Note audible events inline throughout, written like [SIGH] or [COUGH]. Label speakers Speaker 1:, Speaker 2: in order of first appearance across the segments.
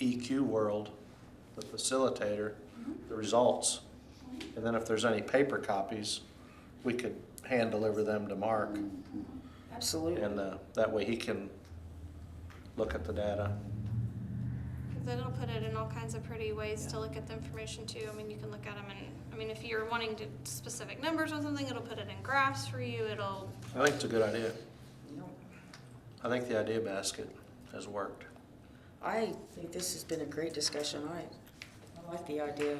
Speaker 1: EQ E world, the facilitator,
Speaker 2: Mm-hmm.
Speaker 1: the results. And then if there's any paper copies, we could hand deliver them to Mark.
Speaker 2: Mm-hmm.
Speaker 3: Absolutely.
Speaker 1: And uh, that way he can look at the data.
Speaker 2: Because it'll put it in all kinds of pretty ways to look at the information too. I mean, you can look at them and, I mean, if you're wanting to specific numbers on something, it'll put it in graphs for you. It'll,
Speaker 1: I think it's a good idea. I think the idea basket has worked.
Speaker 3: I think this has been a great discussion. I, I like the idea.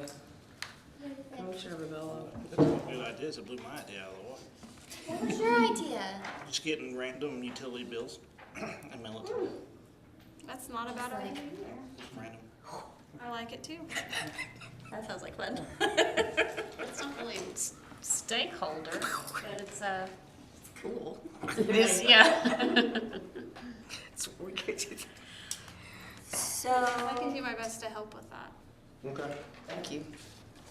Speaker 3: Commissioner Rubello.
Speaker 4: Good ideas, it blew my idea out of the water.
Speaker 5: What was your idea?
Speaker 4: Just getting random utility bills [CLEARS THROAT] and military,
Speaker 2: that's not a bad idea.
Speaker 4: random.
Speaker 2: I like it too.
Speaker 6: That sounds like fun. [LAUGHS] it's not really s- stakeholder, but it's uh, it's cool.
Speaker 3: It is.
Speaker 7: [LAUGHS]
Speaker 6: Yeah.
Speaker 3: It's wicked.
Speaker 5: So,
Speaker 2: I can do my best to help with that.
Speaker 1: Okay.
Speaker 3: Thank you.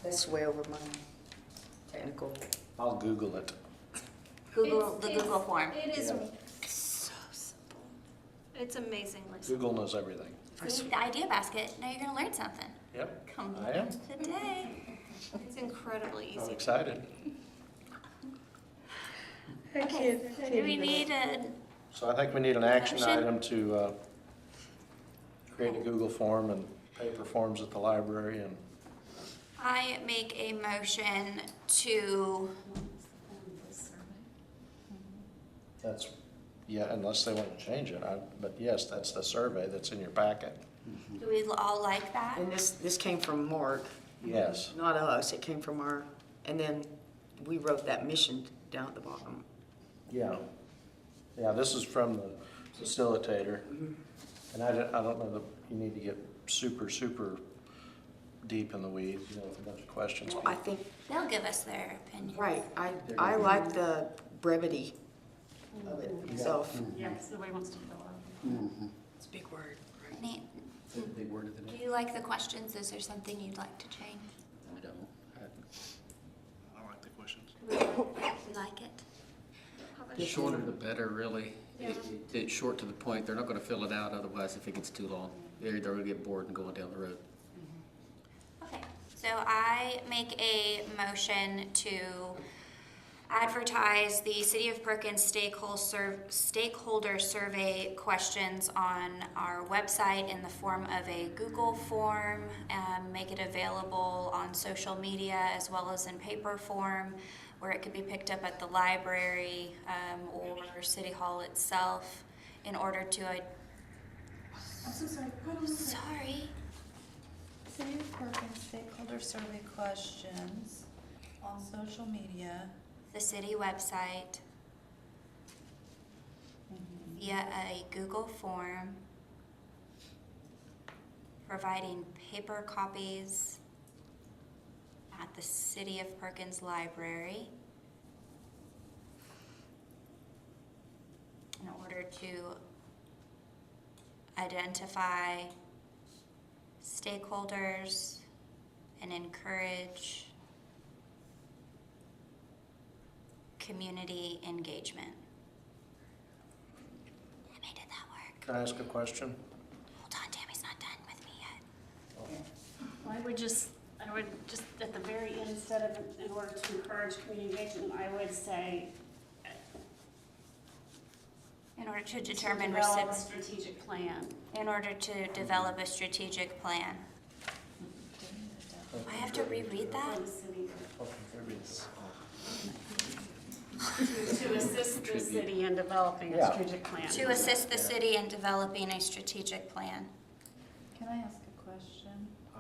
Speaker 3: That's way over my technical.
Speaker 1: I'll Google it.
Speaker 5: Google,
Speaker 2: It's-
Speaker 5: the
Speaker 2: it's-
Speaker 5: Google form.
Speaker 2: It is
Speaker 1: Yeah.
Speaker 2: so simple. It's amazingly simple.
Speaker 1: Google knows everything.
Speaker 5: We need the idea basket. Now you're going to learn something
Speaker 1: Yep.
Speaker 6: Come
Speaker 1: I am.
Speaker 5: today.
Speaker 2: It's incredibly easy.
Speaker 1: I'm excited.
Speaker 5: Okay, do we need a,
Speaker 1: So I think we need an action
Speaker 5: Action.
Speaker 1: item to uh, create a Google form and paper forms at the library and
Speaker 5: I make a motion to,
Speaker 1: that's, yeah, unless they want to change it. I- But yes, that's the survey that's in your packet.
Speaker 5: do we all like that?
Speaker 3: And this, this came from Mark,
Speaker 1: Yes.
Speaker 3: not us. It came from our, and then we wrote that mission down at the bottom.
Speaker 1: Yeah. Yeah, this is from the facilitator. And I don't, I don't know that you need to get super, super deep in the weeds, you know, with a bunch of questions.
Speaker 3: Well, I think,
Speaker 5: They'll give us their opinion.
Speaker 3: right, I, I like the brevity of it itself.
Speaker 6: Yeah, because the way it wants to fill out.
Speaker 3: It's a big word.
Speaker 5: Nate, do you like the questions? Is there something you'd like to change? [COUGHS]
Speaker 8: I don't.
Speaker 4: I like the questions.
Speaker 5: You like it?
Speaker 8: The shorter the better, really. It- it- It's short to the point. They're not gonna fill it out otherwise if it gets too long. They're either gonna get bored and going down the road.
Speaker 5: Okay, so I make a motion to advertise the City of Perkins stakeholder, serv- stakeholder survey questions on our website in the form of a Google form, and make it available on social media as well as in paper form, where it could be picked up at the library, um, or City Hall itself in order to, i sorry.
Speaker 9: City of Perkins stakeholder survey questions on social media.
Speaker 5: the city website via a Google form, providing paper copies at the City of Perkins Library in order to identify stakeholders and encourage community engagement. I made it that work.
Speaker 1: Can I ask a question?
Speaker 5: Hold on, Tammy's not done with me yet.
Speaker 7: I would just, I would just, at the very end, instead of in order to encourage community engagement, I would say.
Speaker 5: In order to
Speaker 7: to
Speaker 5: determine
Speaker 7: develop a
Speaker 5: recipro-
Speaker 7: Strategic plan.
Speaker 5: in order to develop a strategic plan. Do I have to reread that?
Speaker 7: for the city,
Speaker 1: I'll contribute.
Speaker 7: To assist the city in developing a
Speaker 1: Yeah.
Speaker 7: strategic plan.
Speaker 5: To assist the city in developing a strategic plan.
Speaker 9: Can I ask a question?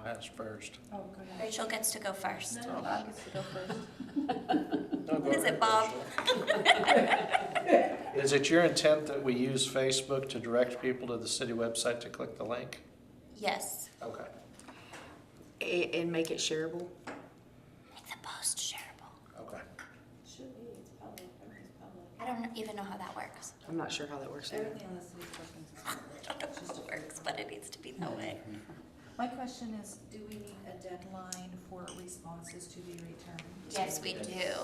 Speaker 1: I asked first.
Speaker 9: Oh, go ahead.
Speaker 5: Rachel gets to go first.
Speaker 9: No, no, I guess you go first.
Speaker 5: [LAUGHS] What is it, Bob?
Speaker 1: [LAUGHS] Is it your intent that we use Facebook to direct people to the city website to click the link?
Speaker 5: Yes.
Speaker 1: Okay.
Speaker 3: And, and make it shareable.
Speaker 5: Make the post shareable.
Speaker 1: Okay.
Speaker 9: Should be, it's public, everything's public.
Speaker 5: I don't even know how that works. [LAUGHS]
Speaker 3: I'm not sure how that works. either.
Speaker 9: Everything on the City of Perkins is
Speaker 5: I
Speaker 9: public.
Speaker 5: don't know how it works, but it needs to be that way.
Speaker 9: My question is, do we need a deadline for responses to be returned?
Speaker 5: Yes, we do.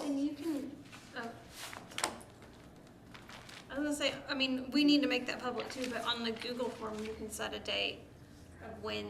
Speaker 2: And you can, uh, I was gonna say, I mean, we need to make that public too, but on the Google form, you can set a date of when